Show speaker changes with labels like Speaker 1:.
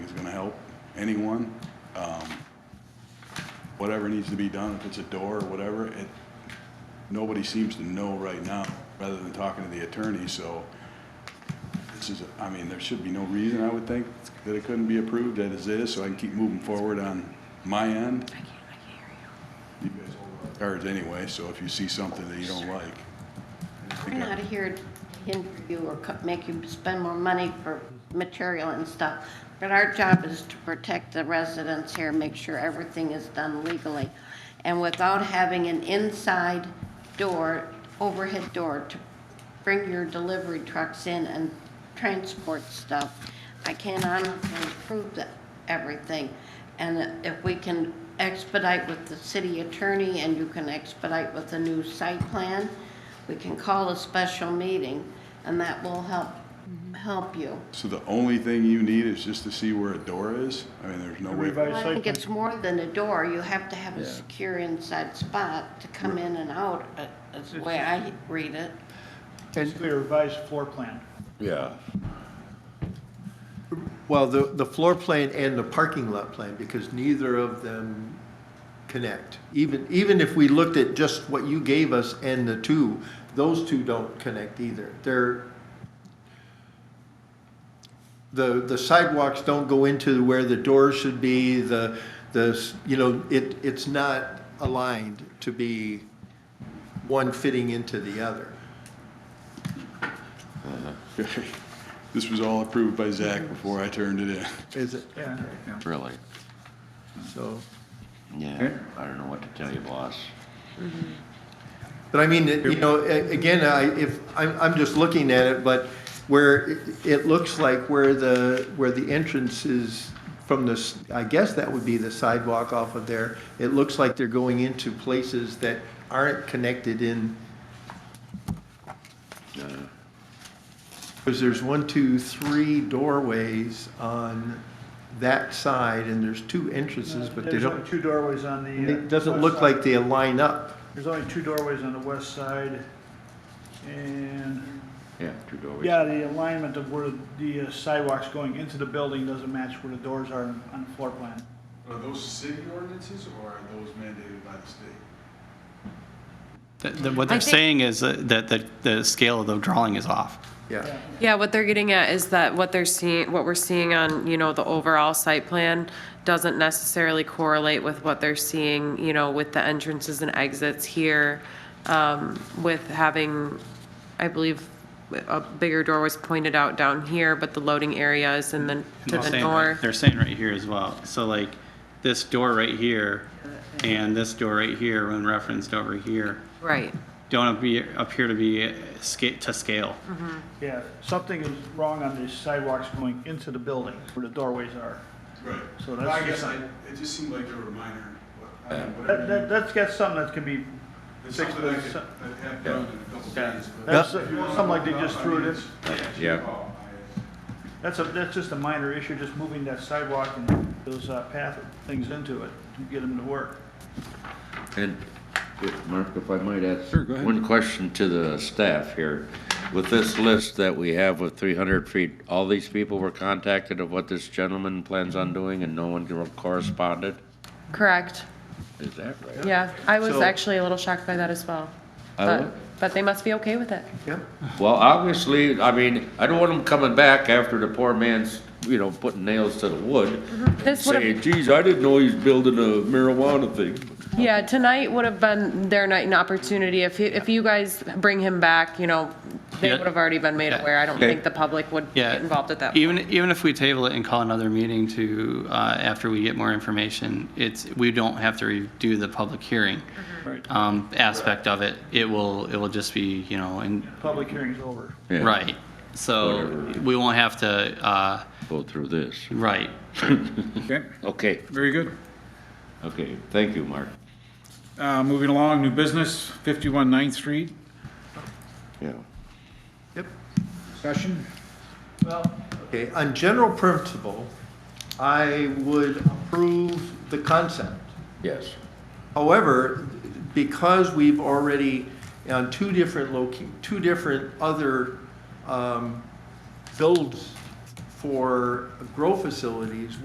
Speaker 1: anyone. Um, Whatever needs to be done, if it's a door or whatever, it, nobody seems to know right now, rather than talking to the attorney, so this is, I mean, there should be no reason, I would think, that it couldn't be approved as is so I can keep moving forward on my end. I can't, I can't hear you. You guys hold our cards anyway, so if you see something that you don't like. I
Speaker 2: We're
Speaker 1: think I-
Speaker 2: not here to hinder you or co- make you spend more money for material and stuff, but our job is to protect the residents here, make sure everything is done legally. And without having an inside door, overhead door to bring your delivery trucks in and transport stuff, I can honestly prove that, everything. And if we can expedite with the city attorney and you can expedite with a new site plan, we can call a special meeting and that will help, help you.
Speaker 1: So the only thing you need is just to see where a door is? I mean, there's no way.
Speaker 2: Well, I think it's more than a door. You have to have a secure inside spot to come in and out, uh, is the way I read it.
Speaker 3: Basically, a revised floor plan.
Speaker 1: Yeah.
Speaker 4: Well, the, the floor plan and the parking lot plan, because neither of them connect. Even, even if we looked at just what you gave us and the two, those two don't connect either. They're, the, the sidewalks don't go into where the doors should be, the, the, s- you know, it, it's not aligned to be one fitting into the other.
Speaker 1: This was all approved by Zach before I turned it in.
Speaker 4: Is it,
Speaker 3: Yeah.
Speaker 5: Really?
Speaker 4: so?
Speaker 5: Yeah, I don't know what to tell you, boss.
Speaker 4: But I mean, it- you know, a- again, I, if, I'm, I'm just looking at it, but where, it- it looks like where the, where the entrance is from this, I guess that would be the sidewalk off of there. It looks like they're going into places that aren't connected in,
Speaker 5: Uh,
Speaker 4: because there's one, two, three doorways on that side, and there's two entrances, but they
Speaker 3: Uh, There's only
Speaker 4: don't,
Speaker 3: two doorways on
Speaker 4: and
Speaker 3: the. uh,
Speaker 4: it doesn't
Speaker 3: west
Speaker 4: look
Speaker 3: side.
Speaker 4: like they line up.
Speaker 3: There's only two doorways on the west side. And,
Speaker 5: Yeah, two doorways.
Speaker 3: yeah, the alignment of where the uh, sidewalks going into the building doesn't match where the doors are on on the floor plan.
Speaker 1: Are those city ordinances or are those mandated by the state?
Speaker 6: That- that What
Speaker 7: I
Speaker 6: they're
Speaker 7: think-
Speaker 6: saying is that that the, the scale of the drawing is off.
Speaker 4: Yeah,
Speaker 7: Yeah, what they're getting at is that what they're seeing, what we're seeing on, you know, the overall site plan doesn't necessarily correlate with what they're seeing, you know, with the entrances and exits here, um, with having, I believe, a bigger door was pointed out down here, but the loading area is in the, to
Speaker 6: They're
Speaker 7: the
Speaker 6: saying right-
Speaker 7: north.
Speaker 6: They're saying right here as well. So like, this door right here and this door right here, when referenced over here,
Speaker 7: Right,
Speaker 6: don't appear, appear to be uh, sca- to scale.
Speaker 7: Mm-hmm.
Speaker 3: Yeah, something is wrong on the sidewalks going into the building where the doorways are.
Speaker 1: Right.
Speaker 3: So that's-
Speaker 1: I guess I, it just seemed like they were minor. what- I mean,
Speaker 3: That,
Speaker 1: whatever
Speaker 3: that, that's got something that can be,
Speaker 1: you- It's something I could I'd have done in a couple days. but-
Speaker 3: that's uh, something like they just threw it in.
Speaker 5: Yeah.
Speaker 3: That's a, that's just a minor issue, just moving that sidewalk and those uh, path things into it to get them to work.
Speaker 5: And, if- Mark, if I might ask.
Speaker 1: go ahead.
Speaker 5: One question to the staff here. With this list that we have with three hundred feet, all these people were contacted of what this gentleman plans on doing and no one corresponded?
Speaker 7: correct,
Speaker 5: Is that right?
Speaker 7: yeah. I was
Speaker 4: So-
Speaker 7: actually a little shocked by that as well.
Speaker 5: I
Speaker 7: But-
Speaker 5: would-
Speaker 7: But they must be okay with it.
Speaker 4: yeah.
Speaker 5: Well, obviously, I mean, I don't want him coming back after the poor man's, you know, putting nails to the wood. and
Speaker 7: This would've-
Speaker 5: Saying, geez, I didn't know he's building a marijuana thing.
Speaker 7: Yeah, tonight would have been their night and opportunity. If, he- if you guys bring him back, you know, they
Speaker 6: Yeah.
Speaker 7: would have already been made
Speaker 6: Yeah.
Speaker 7: aware. I don't
Speaker 5: Okay.
Speaker 7: think the public would
Speaker 6: Yeah.
Speaker 7: get involved at that. point.
Speaker 6: Even, even if we table it and call another meeting to, uh, after we get more information, it's, we don't have to redo the public hearing,
Speaker 7: Mm-hmm.
Speaker 6: um, aspect of it. It will, it will just be, you know, and,
Speaker 3: Public hearing's over.
Speaker 5: Yeah,
Speaker 6: right. So
Speaker 5: Whatever.
Speaker 6: we won't have to, uh,
Speaker 5: Go through this.
Speaker 6: right.
Speaker 8: Okay,
Speaker 5: Okay,
Speaker 8: very good.
Speaker 5: okay, thank you, Mark.
Speaker 8: Uh, Moving along, new business, 51 Ninth Street,
Speaker 5: Yeah.
Speaker 8: discussion.
Speaker 4: Okay, on general principle, I would approve the concept.
Speaker 5: Yes.
Speaker 4: However, because we've already, on two different loca, two different other um, builds for grow facilities,